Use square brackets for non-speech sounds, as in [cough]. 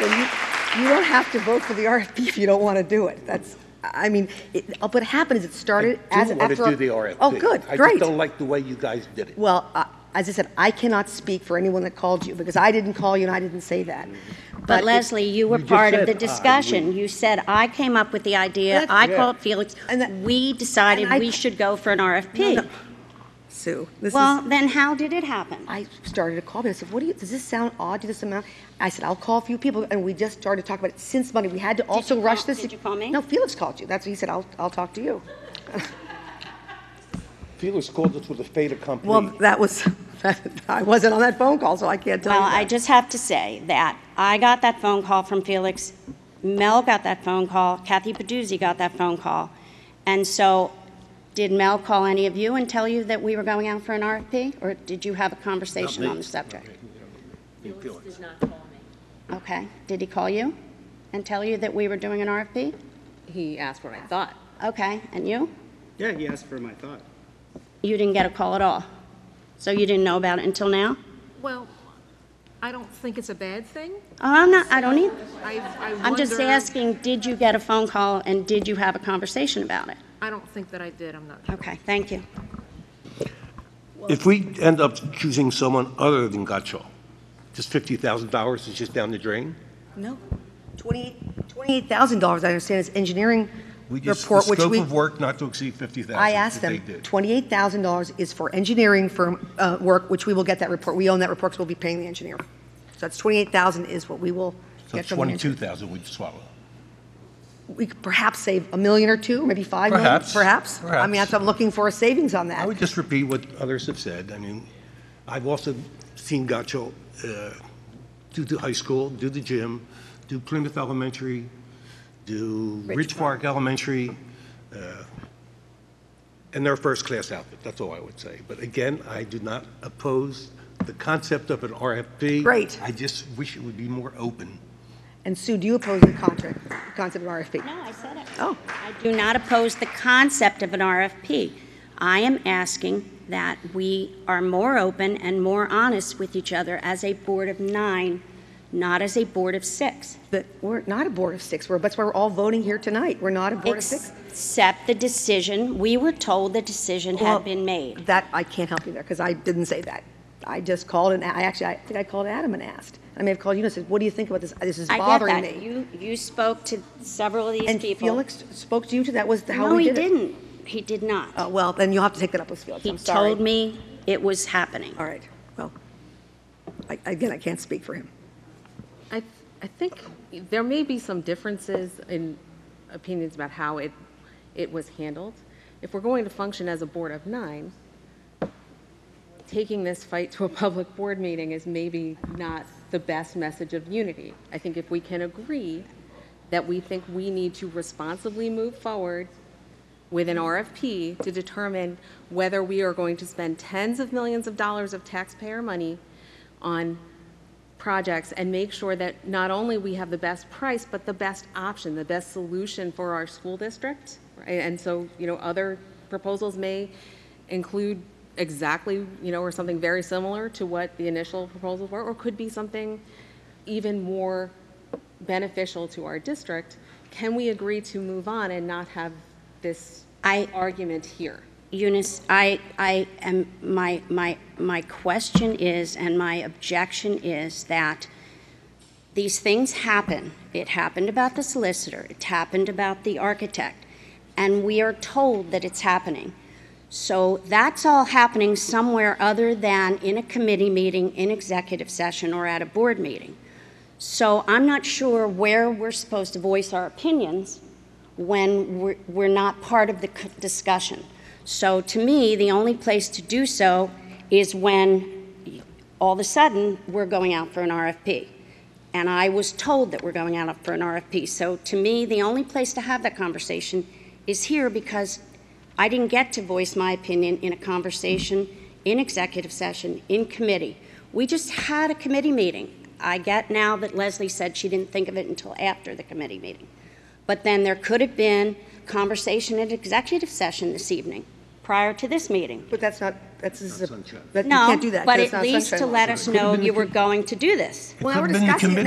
Then you, you don't have to vote for the RFP if you don't want to do it. That's, I mean, it, uh, what happened is it started I as do after. want to our- do the RFP. Oh, good, I just great. don't like the way you guys did it. Well, uh, as I said, I cannot speak for anyone that called you because I didn't call you and I didn't say that. But it- Leslie, you were You just part of the said, "I discussion. You said, I came up with the idea, That's- I Yeah. called Felix, And that- we decided and I- we should go for an No, no. RFP. Sue, this Well, is, then how did it happen? I started to call people. I said, what do you, does this sound odd to this amount? I said, I'll call a few people and we just started to talk about it since Monday. We had to also you rush call- this. did you call me? No, Felix called you. That's what he said, I'll, I'll talk to you. Felix called us with a fait accompli. Well, that was, [laughs] I wasn't on that phone call, so I can't tell you Well, I that. just have to say that I got that phone call from Felix, Mel got that phone call, Kathy Paduzzi got that phone call. And so, did Mel call any of you and tell you that we were going out for an RFP? Or did you have a conversation on the subject? Felix did not call me. Okay, did he call you and tell you that we were doing an RFP? He asked what I thought. Okay, and you? Yeah, he asked for my thought. You didn't get a call at all? So you didn't know about it until now? Well, I don't think it's a bad thing. Oh, I'm not, I don't either. I, I I'm just wonder- asking, did you get a phone call and did you have a conversation about it? I don't think that I did, I'm not Okay, thank you. If we end up choosing someone other than Gottschall, just $50,000 is just down the drain? No, twenty, twenty-eight thousand dollars, I understand, is engineering We just- report, which The we. scope of work not to exceed 50,000. I asked that they them, did. twenty-eight thousand dollars is for engineering firm, uh, work, which we will get that report. We own that report, so we'll be paying the engineer. So that's twenty-eight thousand is what we will So get from the engineer. 22,000 we'd swallow. We could perhaps save a million or two, maybe five million. Perhaps, Perhaps. I mean, perhaps. that's, I'm looking for a savings on I that. would just repeat what others have said. I mean, I've also seen Gotcho uh, do the high school, do the gym, do Plymouth Elementary, do Ridge Park Elementary, uh, and their first-class outfit. That's all I would say. But again, I do not oppose the concept of an RFP. Great. I just wish it would be more open. And Sue, do you oppose the contract, concept of RFP? No, I said it. Oh. I do not oppose the concept of an RFP. I am asking that we are more open and more honest with each other as a board of nine, not as a board of six. But we're not a board of six. We're, that's why we're all voting here tonight. We're not a board of six. Except the decision, we were told the decision Well, had been made. That, I can't help you there, because I didn't say that. I just called and, I actually, I think I called Adam and asked. I may have called you and said, what do you think about this? This is I get bothering that. me. You, you spoke to several of these And people. Felix spoke to you too? That was how No, we he did it? didn't. He did not. Uh, Well, then you'll have to take that up with Felix. He I'm sorry. told me it was happening. All right, well, I- again, I can't speak for him. I, I think there may be some differences in opinions about how it, it was handled. If we're going to function as a board of nine, taking this fight to a public board meeting is maybe not the best message of unity. I think if we can agree that we think we need to responsibly move forward with an RFP to determine whether we are going to spend tens of millions of dollars of taxpayer money on projects and make sure that not only we have the best price, but the best option, the best solution for our school district. right? And so, you know, other proposals may include exactly, you know, or something very similar to what the initial proposals were, or could be something even more beneficial to our district. Can we agree to move on and not have this I- argument here? Eunice, I, I am, my, my, my question is, and my objection is that these things happen. It happened about the solicitor, it happened about the architect, and we are told that it's happening. So that's all happening somewhere other than in a committee meeting, in executive session, or at a board meeting. So I'm not sure where we're supposed to voice our opinions when we're, we're not part of the c- discussion. So to me, the only place to do so is when all of a sudden we're going out for an RFP. And I was told that we're going out for an RFP. So to me, the only place to have that conversation is here because I didn't get to voice my opinion in a conversation, in executive session, in committee. We just had a committee meeting. I get now that Leslie said she didn't think of it until after the committee meeting. But then there could have been conversation at executive session this evening, prior to this meeting. But that's not, that's, this is a, sunshine. that- you No, can't do that. but 'cause at it's not least sunshine to law. let us know you were going to do this. Well, now Could we're have been the discussing it committee.